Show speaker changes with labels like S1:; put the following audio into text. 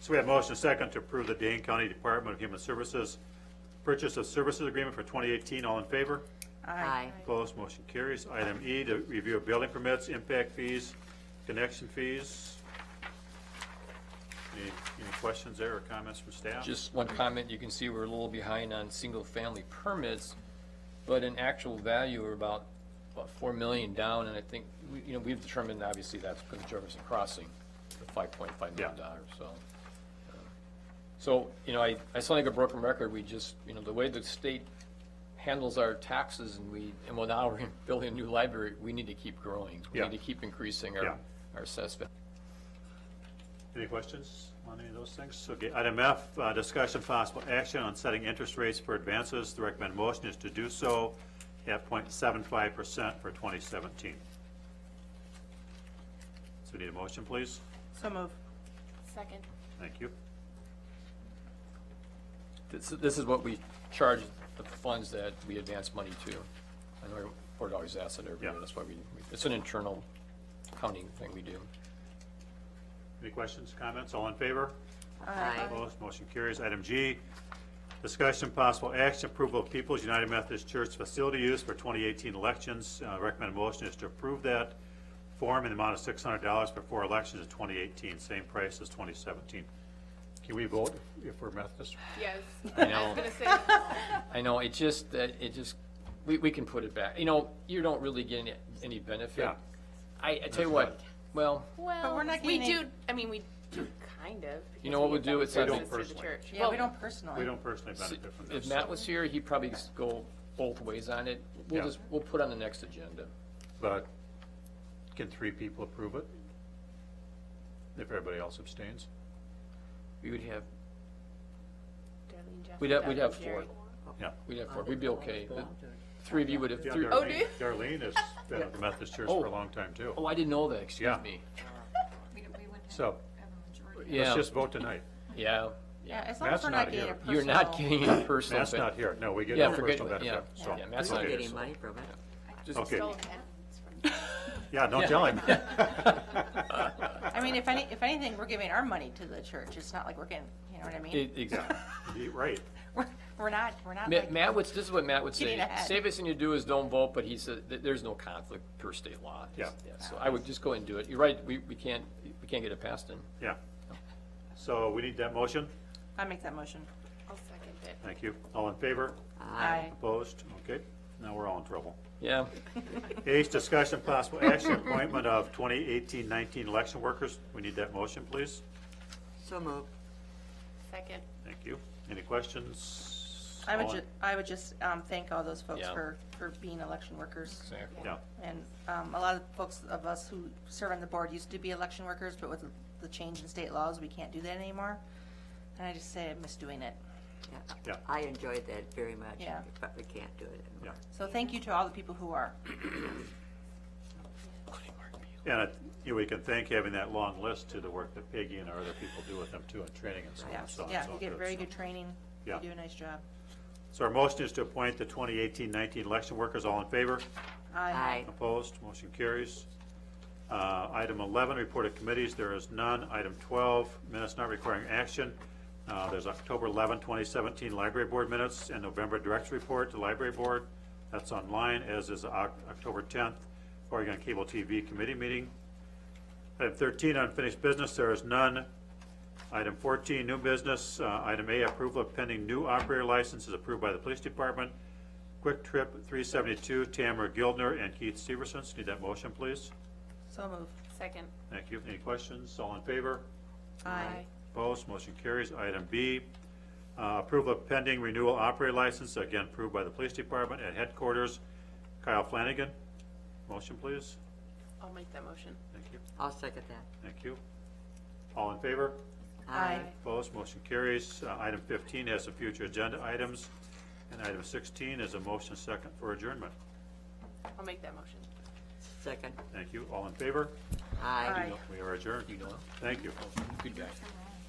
S1: So we have motion second to approve the Dane County Department of Human Services Purchase of Services Agreement for 2018. All in favor?
S2: Aye.
S1: Opposed, motion carries. Item E, to review of building permits, impact fees, connection fees. Any, any questions there or comments from staff?
S3: Just one comment, you can see we're a little behind on single-family permits, but in actual value, we're about, about four million down, and I think, we- you know, we've determined, obviously, that's because of Jefferson Crossing, the five point five million
S1: Yeah.
S3: dollars, so. uh, So, you know, I, I sound like a broken record, we just, you know, the way the state handles our taxes and we, and well, now we're building a new library, we need to keep growing. We
S1: Yeah.
S3: need to keep increasing
S1: Yeah.
S3: our, our assessed value.
S1: Any questions on any of those things? Okay, item F, uh, discussion possible action on setting interest rates for advances. The recommended motion is to do so at 0.75% for 2017. So we need a motion, please?
S2: So move.
S4: Second.
S1: Thank you.
S3: This, this is what we charge the funds that we advance money to. I know our board always asks that every year,
S1: Yeah.
S3: that's why we, it's an internal accounting thing we do.
S1: Any questions, comments? All in favor?
S2: Aye.
S1: Opposed, motion carries. Item G, discussion possible action, approval of People's United Methodist Church facility use for 2018 elections. Uh, Recommended motion is to approve that form in the amount of $600 for four elections in 2018, same price as 2017. Can we vote if we're Methodist?
S4: Yes.
S3: I
S4: I was
S3: know,
S4: gonna say,
S3: I know, it just, that, it just, we, we can put it back, you know, you don't really get any, any benefit.
S1: Yeah.
S3: I, I tell you what, well,
S2: But we're
S4: well,
S2: not
S4: we
S2: getting
S4: do, I mean, we do kind of.
S3: You know what we'll do? It's
S4: Through
S3: not- We
S1: don't
S4: the
S1: personally.
S4: church.
S2: Yeah, we
S4: Well,
S2: don't personally.
S1: We don't personally benefit from
S3: if
S1: this.
S3: Matt was here, he probably go both ways on it. We'll
S1: Yeah.
S3: just, we'll put on the next agenda.
S1: But can three people approve it? If everybody else abstains?
S3: We would have,
S4: Darlene, Jeff,
S3: We'd have- we'd
S4: Doug,
S3: have
S4: Jerry.
S1: Yeah.
S3: we'd have four, we'd be okay. The Three of you would have,
S1: Yeah,
S3: three,
S4: Oh, do
S1: Darlene
S4: you?
S1: Darlene has been at the Methodist Church for a long time, too.
S3: oh, I didn't know that, excuse
S1: Yeah.
S3: me.
S5: We don't- we wouldn't have
S1: So
S5: a majority.
S3: Yeah.
S1: let's just vote tonight.
S3: Yeah,
S2: Yeah, as long
S1: Matt's
S2: as we're not
S1: not
S2: getting a personal.
S3: you're not getting a personal.
S1: Matt's
S3: ben-
S1: not here. No, we get
S3: Yeah,
S1: no
S3: forget-
S1: personal
S3: yeah,
S1: benefit. so-
S3: yeah, Matt's
S6: He's not
S1: okay,
S6: getting
S1: so-
S6: money from it.
S1: Okay,
S4: Still have-
S1: yeah, don't tell him.
S2: I mean, if any, if anything, we're giving our money to the church. It's not like we're getting, you know what I mean?
S3: It- Exactly.
S1: He- Right.
S2: We're, we're not, we're not
S3: Ma-
S2: like.
S3: Matt would, this is what Matt would
S2: Getting
S3: say,
S2: ahead.
S3: safest thing to do is don't vote, but he said, th- there's no conflict per state law.
S1: Yeah.
S3: So I would just go and do it. You're right, we, we can't, we can't get it passed in.
S1: Yeah. So we need that motion.
S2: I make that motion.
S4: I'll second it.
S1: Thank you. All in favor?
S2: Aye.
S1: Opposed? Okay, now we're all in trouble.
S3: Yeah,
S1: H, discussion possible action appointment of 2018-19 election workers. We need that motion, please.
S6: So moved.
S4: Second.
S1: Thank you. Any questions?
S2: I would
S1: All in-
S2: ju, I would just, um, thank all those folks
S3: Yeah.
S2: for, for being election workers.
S1: Yeah,
S2: And, um, a lot of folks of us who serve on the board used to be election workers, but with the change in state laws, we can't do that anymore. And I just say I miss doing it.
S1: Yeah.
S6: I enjoyed that very much.
S2: Yeah.
S6: But we can't do it
S1: yeah.
S6: anymore.
S2: So thank you to all the people who are.
S1: And I- you know, we can thank having that long list to the work that Peggy and our other people do with them too, and training and so on.
S2: Yeah,
S1: and so on.
S2: yeah,
S1: So
S2: you get
S1: it's-
S2: very good training. You
S1: Yeah.
S2: do a nice job.
S1: So our motion is to appoint the 2018-19 election workers. All in favor?
S6: Aye.
S1: Opposed, motion carries. Uh, Item 11, report of committees, there is none. Item 12, minutes not requiring action. Uh, There's October 11, 2017 Library Board minutes and November Director's Report to Library Board. That's online, as is Oc- October 10th, Oregon Cable TV Committee meeting. Item 13, unfinished business, there is none. Item 14, new business. Uh, Item A, approval of pending new operator licenses approved by the Police Department. Quick Trip 372, Tamara Gildner and Keith Severson. Need that motion, please?
S2: So move.
S4: Second.
S1: Thank you. Any questions? All in favor?
S2: Aye.
S1: Opposed? Motion carries. Item B, uh, approval of pending renewal operator license, again approved by the Police Department at headquarters. Kyle Flanagan, motion, please?
S4: I'll make that motion.
S1: Thank you.
S6: I'll second that.
S1: Thank you. All in favor?
S2: Aye.
S1: Opposed, motion carries. Uh, Item 15 has some future agenda items, and item 16 is a motion second for adjournment.
S4: I'll make that motion.
S6: Second.
S1: Thank you. All in favor?
S6: Aye.
S2: Aye.
S1: We are adjourned.
S3: you know,
S1: Thank you.
S3: good guy.